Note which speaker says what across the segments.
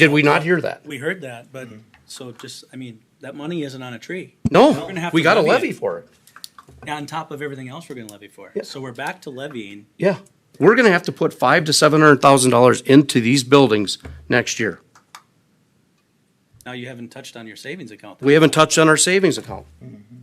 Speaker 1: Did we not hear that?
Speaker 2: We heard that, but, so just, I mean, that money isn't on a tree. We're
Speaker 1: No,
Speaker 2: gonna have
Speaker 1: we
Speaker 2: to
Speaker 1: got a
Speaker 2: levy it.
Speaker 1: levy for it.
Speaker 2: On top of everything else we're gonna levy for.
Speaker 1: Yeah.
Speaker 2: So we're back to levying.
Speaker 1: Yeah. We're gonna have to put five to seven hundred thousand dollars into these buildings next year.
Speaker 2: Now you haven't touched on your savings account.
Speaker 1: We haven't touched on our savings account.
Speaker 2: Mm-hmm.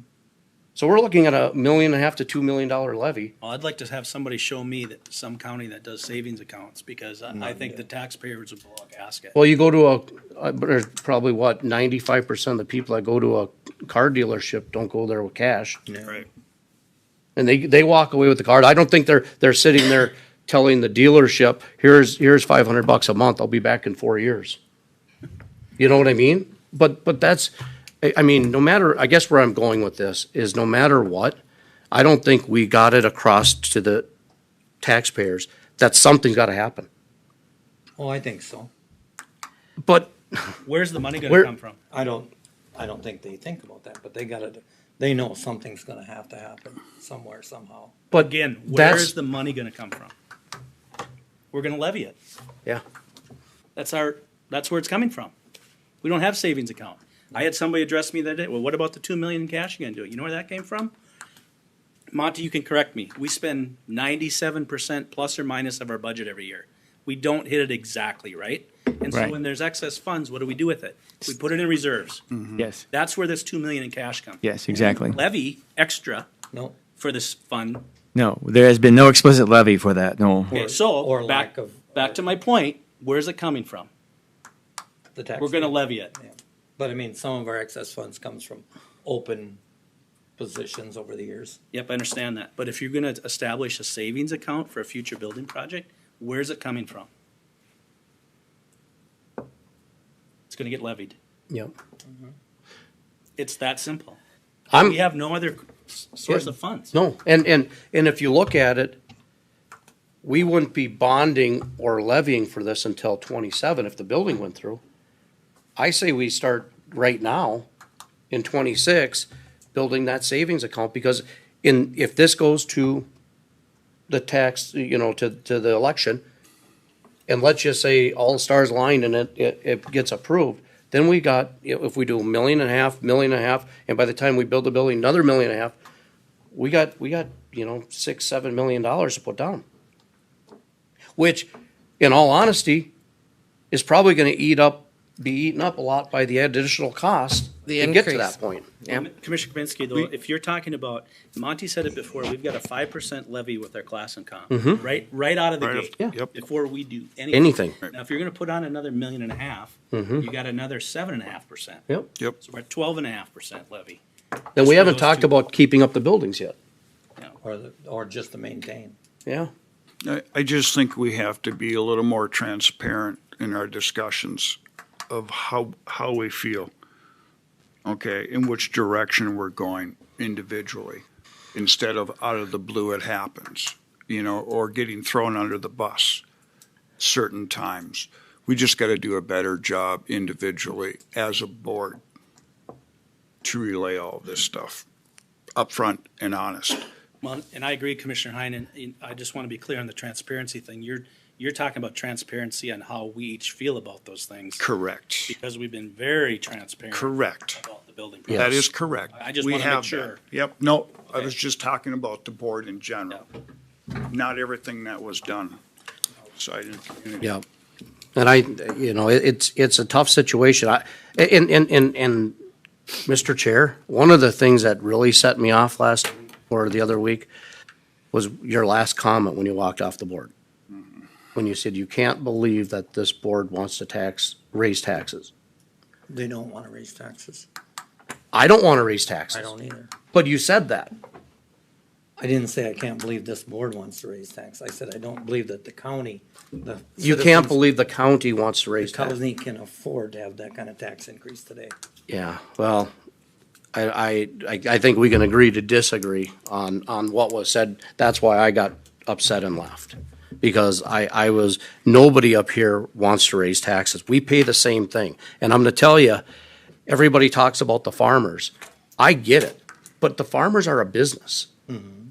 Speaker 1: So we're looking at a million and a half to two million dollar levy.
Speaker 2: Well, I'd like to have somebody show me that some county that does savings accounts because I, I think the taxpayers would blow a gasket.
Speaker 1: Well, you go to a, uh, there's probably what, ninety-five percent of the people that go to a car dealership don't go there with cash.
Speaker 2: Right.
Speaker 1: And they, they walk away with the card. I don't think they're, they're sitting there telling the dealership, here's, here's five hundred bucks a month, I'll be back in four years. You know what I mean? But, but that's, I, I mean, no matter, I guess where I'm going with this is no matter what, I don't think we got it across to the taxpayers that something's gotta happen.
Speaker 3: Oh, I think so.
Speaker 1: But
Speaker 2: Where's the money
Speaker 1: Where-
Speaker 2: gonna come from?
Speaker 3: I don't, I don't think they think about that, but they gotta, they know something's gonna have to happen somewhere, somehow.
Speaker 1: But
Speaker 2: Again,
Speaker 1: that's-
Speaker 2: where's the money gonna come from? We're gonna levy it.
Speaker 1: Yeah.
Speaker 2: That's our, that's where it's coming from. We don't have savings account. I had somebody address me that day, well, what about the two million in cash you're gonna do? You know where that came from? Monty, you can correct me. We spend ninety-seven percent plus or minus of our budget every year. We don't hit it exactly, right? And so
Speaker 4: Right.
Speaker 2: when there's excess funds, what do we do with it? We put it in reserves.
Speaker 4: Yes,
Speaker 2: That's where this two million in cash comes.
Speaker 4: yes, exactly.
Speaker 2: Levy extra
Speaker 3: No,
Speaker 2: for this fund
Speaker 4: No, there has been no explicit levy for that, no.
Speaker 2: Okay,
Speaker 3: Or-
Speaker 2: so,
Speaker 3: or
Speaker 2: back,
Speaker 3: lack of-
Speaker 2: back to my point, where's it coming from?
Speaker 3: the tax.
Speaker 2: We're gonna levy it.
Speaker 3: But I mean, some of our excess funds comes from open positions over the years.
Speaker 2: Yep, I understand that, but if you're gonna establish a savings account for a future building project, where's it coming from? It's gonna get levied.
Speaker 1: Yep.
Speaker 2: It's that simple.
Speaker 1: I'm,
Speaker 2: We have no other s- source of funds.
Speaker 1: no, and, and, and if you look at it, we wouldn't be bonding or levying for this until twenty-seven if the building went through. I say we start right now in twenty-six, building that savings account, because in, if this goes to the tax, you know, to, to the election, and let's just say all the stars aligned and it, it, it gets approved, then we got, if we do a million and a half, million and a half, and by the time we build the building, another million and a half, we got, we got, you know, six, seven million dollars to put down. Which, in all honesty, is probably gonna eat up, be eaten up a lot by the additional cost
Speaker 5: The
Speaker 1: to get to
Speaker 5: increase.
Speaker 1: that point.
Speaker 2: Com- Commissioner Kapinski, though, if you're talking about, Monty said it before, we've got a five percent levy with our class and comp, right, right out of the
Speaker 6: Right off-
Speaker 2: gate.
Speaker 6: Yeah. yep.
Speaker 2: Before we do anything.
Speaker 1: Anything.
Speaker 2: Now, if you're gonna put on another million and a half, you got another seven and a half percent.
Speaker 1: Yep.
Speaker 6: Yep.
Speaker 2: So we're at twelve and a half percent levy.
Speaker 1: Then we
Speaker 2: Just
Speaker 1: haven't
Speaker 2: those
Speaker 1: talked
Speaker 2: two.
Speaker 1: about keeping up the buildings yet,
Speaker 3: Or, the- or just to maintain.
Speaker 1: yeah?
Speaker 6: I, I just think we have to be a little more transparent in our discussions of how, how we feel. Okay, in which direction we're going individually, instead of out of the blue it happens, you know, or getting thrown under the bus certain times. We just gotta do a better job individually as a board to relay all this stuff upfront and honest.
Speaker 2: Well, and I agree, Commissioner Heinen, and I just want to be clear on the transparency thing. You're, you're talking about transparency on how we each feel about those things.
Speaker 6: Correct.
Speaker 2: Because we've been very transparent.
Speaker 6: Correct.
Speaker 2: About the building.
Speaker 6: That
Speaker 2: process.
Speaker 6: is correct.
Speaker 2: I just
Speaker 6: We
Speaker 2: wanna make
Speaker 6: have that.
Speaker 2: sure.
Speaker 6: Yep, no, I
Speaker 2: Okay.
Speaker 6: was just talking about the board in general. Not everything that was done outside of the community.
Speaker 1: Yeah. And I, you know, it- it's, it's a tough situation. I, and, and, and, and, Mr. Chair, one of the things that really set me off last or the other week was your last comment when you walked off the board.
Speaker 3: Mm-hmm.
Speaker 1: When you said, you can't believe that this board wants to tax, raise taxes.
Speaker 3: They don't wanna raise taxes.
Speaker 1: I don't want to raise taxes.
Speaker 3: I don't either.
Speaker 1: But you said that.
Speaker 3: I didn't say I can't believe this board wants to raise tax. I said I don't believe that the county, the.
Speaker 1: You
Speaker 3: citizens-
Speaker 1: can't believe the county wants to raise
Speaker 3: The
Speaker 1: taxes.
Speaker 3: county can afford to have that kind of tax increase today.
Speaker 1: Yeah, well, I, I, I- I think we can agree to disagree on, on what was said. That's why I got upset and left. Because I, I was, nobody up here wants to raise taxes. We pay the same thing. And I'm gonna tell you, everybody talks about the farmers. I get it, but the farmers are a business.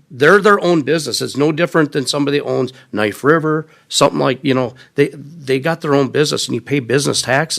Speaker 1: They're their own business. It's no different than somebody owns Knife River, something like, you know, they, they got their own business and you pay business taxes.